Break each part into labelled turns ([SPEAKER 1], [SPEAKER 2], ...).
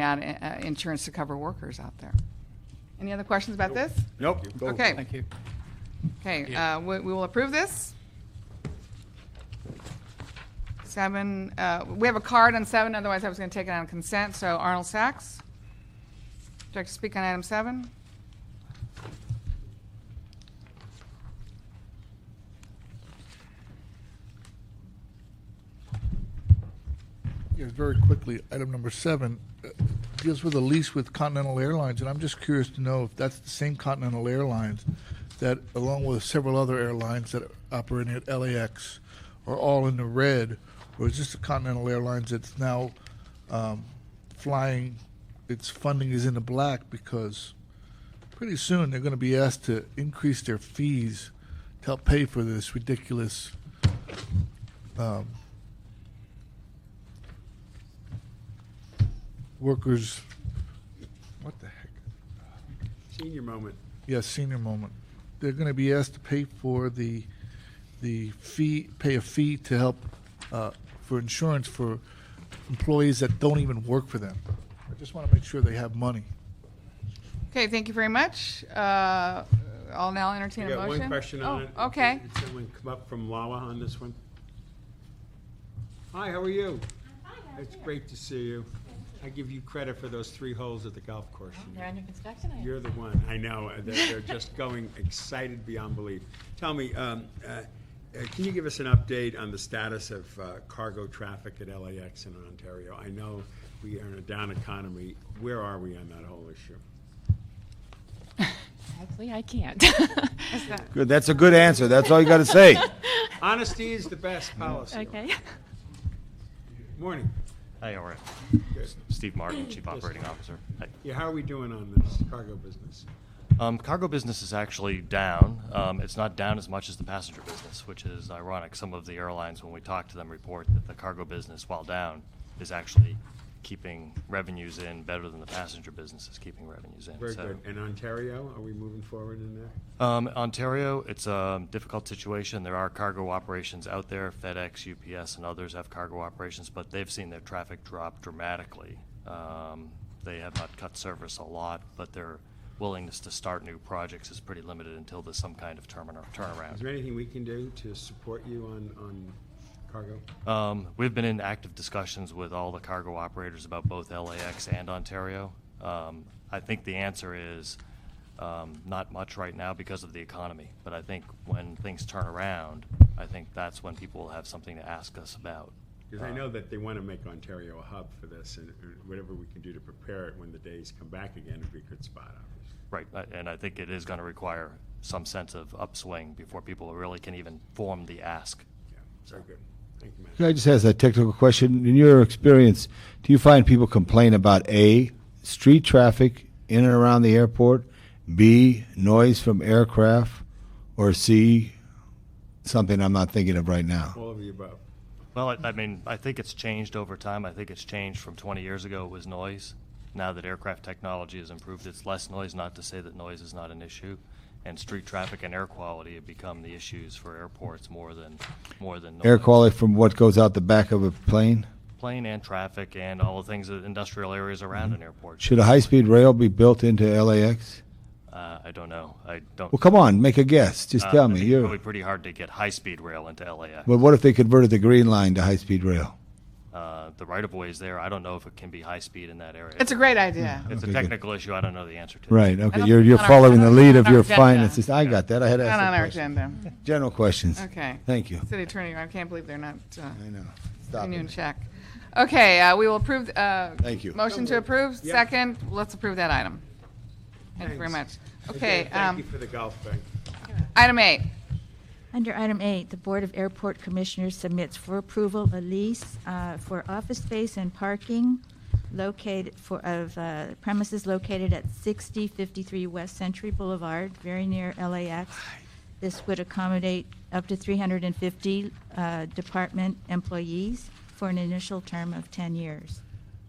[SPEAKER 1] out uh, insurance to cover workers out there. Any other questions about this?
[SPEAKER 2] Nope.
[SPEAKER 1] Okay,
[SPEAKER 3] Thank you.
[SPEAKER 1] okay, uh, we we will approve this. Seven, uh, we have a card on seven, otherwise I was going to take it on consent, so Arnold Sacks. Would you like to speak on item seven?
[SPEAKER 4] Yes, very quickly, item number seven uh, deals with a lease with Continental Airlines, and I'm just curious to know if that's the same Continental Airlines that, along with several other airlines that are operating at LAX, are all in the red, or is this the Continental Airlines that's now um, flying, its funding is in the black because pretty soon they're going to be asked to increase their fees to help pay for this ridiculous um, workers. What the heck?
[SPEAKER 2] Senior moment.
[SPEAKER 4] Yes, senior moment. They're going to be asked to pay for the the fee, pay a fee to help uh, for insurance for employees that don't even work for them. I just want to make sure they have money.
[SPEAKER 1] Okay, thank you very much. Uh, I'll now entertain
[SPEAKER 2] I
[SPEAKER 1] a
[SPEAKER 2] got
[SPEAKER 1] motion.
[SPEAKER 2] one question on it.
[SPEAKER 1] Oh, Okay.
[SPEAKER 2] Did someone come up from Lawa on this one? Hi, how are you? It's great to see you. Oh, I give you credit for those three holes at the golf course.
[SPEAKER 5] They're under construction. I-
[SPEAKER 2] You're the one, I know, uh, they're, they're just going excited beyond belief. Tell me, um, uh, uh, can you give us an update on the status of uh, cargo traffic at LAX and Ontario? I know we are in a down economy, where are we on that whole issue?
[SPEAKER 5] Actually, I can't.
[SPEAKER 6] Good. That's a good answer. That's all you got to say.
[SPEAKER 2] Honesty is the best policy. Morning.
[SPEAKER 7] Hey, all right.
[SPEAKER 2] Good.
[SPEAKER 7] Steve Martin, Chief Operating Officer. Hey.
[SPEAKER 2] Yeah, how are we doing on this cargo business?
[SPEAKER 7] Um, cargo business is actually down. Um, it's not down as much as the passenger business, which is ironic. Some of the airlines, when we talk to them, report that the cargo business, while down, is actually keeping revenues in better than the passenger business is keeping revenues in.
[SPEAKER 2] Very
[SPEAKER 7] So,
[SPEAKER 2] good. And Ontario, are we moving forward in there?
[SPEAKER 7] Um, Ontario, it's a difficult situation. There are cargo operations out there. FedEx, UPS, and others have cargo operations, but they've seen their traffic drop dramatically. Um, they have not cut service a lot, but their willingness to start new projects is pretty limited until there's some kind of terminal
[SPEAKER 2] Is there
[SPEAKER 7] turnaround.
[SPEAKER 2] anything we can do to support you on, on cargo?
[SPEAKER 7] Um, we've been in active discussions with all the cargo operators about both LAX and Ontario. Um, I think the answer is um, not much right now because of the economy. But I think when things turn around, I think that's when people will have something to ask us about. Uh,
[SPEAKER 2] Because I know that they want to make Ontario a hub for this, and and whatever we can do to prepare it when the days come back again would be a good spot, obviously.
[SPEAKER 7] Right, I- and I think it is going to require some sense of upswing before people really can even form the ask.
[SPEAKER 2] Yeah, very good. Thank you,
[SPEAKER 6] Can
[SPEAKER 2] Matt.
[SPEAKER 6] I just ask a technical question? In your experience, do you find people complain about A, street traffic in and around the airport, B, noise from aircraft, or C, something I'm not thinking of right now?
[SPEAKER 2] All of the above.
[SPEAKER 7] Well, I- I mean, I think it's changed over time. I think it's changed from 20 years ago, it was noise. Now that aircraft technology has improved, it's less noise, not to say that noise is not an issue. And street traffic and air quality have become the issues for airports more than, more than.
[SPEAKER 6] Air
[SPEAKER 7] noise.
[SPEAKER 6] quality from what goes out the back of a plane?
[SPEAKER 7] Plane and traffic and all the things, that industrial areas around an airport.
[SPEAKER 6] Mm-hmm. Should a high speed rail be built into LAX?
[SPEAKER 7] Uh, I don't know. I don't.
[SPEAKER 6] Well, come on, make a guess. Just
[SPEAKER 7] Uh, I
[SPEAKER 6] tell me.
[SPEAKER 7] think It's probably
[SPEAKER 6] You're,
[SPEAKER 7] pretty hard to get high-speed rail into Uh, LAX.
[SPEAKER 6] but what if they converted the Green Line to high speed rail?
[SPEAKER 7] Uh, the right-of-way is there. I don't know if it can be high-speed in that area.
[SPEAKER 1] It's a great idea.
[SPEAKER 2] Hmm.
[SPEAKER 7] It's
[SPEAKER 6] Okay,
[SPEAKER 7] a
[SPEAKER 6] good.
[SPEAKER 7] technical issue. I don't know the answer to.
[SPEAKER 6] Right, okay.
[SPEAKER 1] don't
[SPEAKER 6] You're,
[SPEAKER 1] think
[SPEAKER 6] you're
[SPEAKER 1] on our-
[SPEAKER 6] following
[SPEAKER 1] not
[SPEAKER 6] the
[SPEAKER 1] on-
[SPEAKER 6] lead
[SPEAKER 1] not on
[SPEAKER 6] of
[SPEAKER 1] our
[SPEAKER 6] your
[SPEAKER 1] agenda.
[SPEAKER 6] finances. I got that. I had
[SPEAKER 1] Not on our
[SPEAKER 6] asked a question.
[SPEAKER 1] agenda.
[SPEAKER 6] General questions.
[SPEAKER 1] Okay.
[SPEAKER 6] Thank you.
[SPEAKER 1] City attorney, I can't believe they're not uh,
[SPEAKER 6] I know. Stop
[SPEAKER 1] Afternoon
[SPEAKER 6] it.
[SPEAKER 1] check. Okay, uh, we will approve, uh.
[SPEAKER 6] Thank you.
[SPEAKER 1] Motion to approve,
[SPEAKER 2] Yeah.
[SPEAKER 1] second, let's approve that item. Thank you very much.
[SPEAKER 2] Thanks.
[SPEAKER 1] Okay,
[SPEAKER 2] Thank you
[SPEAKER 1] um,
[SPEAKER 2] for the golf thing.
[SPEAKER 1] item eight,
[SPEAKER 5] Under item eight, the Board of Airport Commissioners submits for approval a lease uh, for office space and parking located for, of uh, premises located at 6053 West Century Boulevard, very near LAX. This would accommodate up to 350 uh, department employees for an initial term of 10 years.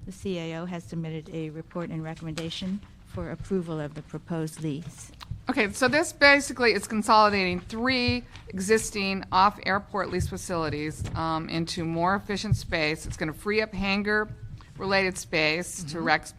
[SPEAKER 5] The CAO has submitted a report and recommendation for approval of the proposed lease.
[SPEAKER 1] okay, so this basically is consolidating three existing off-airport lease facilities, um, into more efficient space. It's gonna free up hangar
[SPEAKER 2] Mm-hmm.
[SPEAKER 1] related space to Rex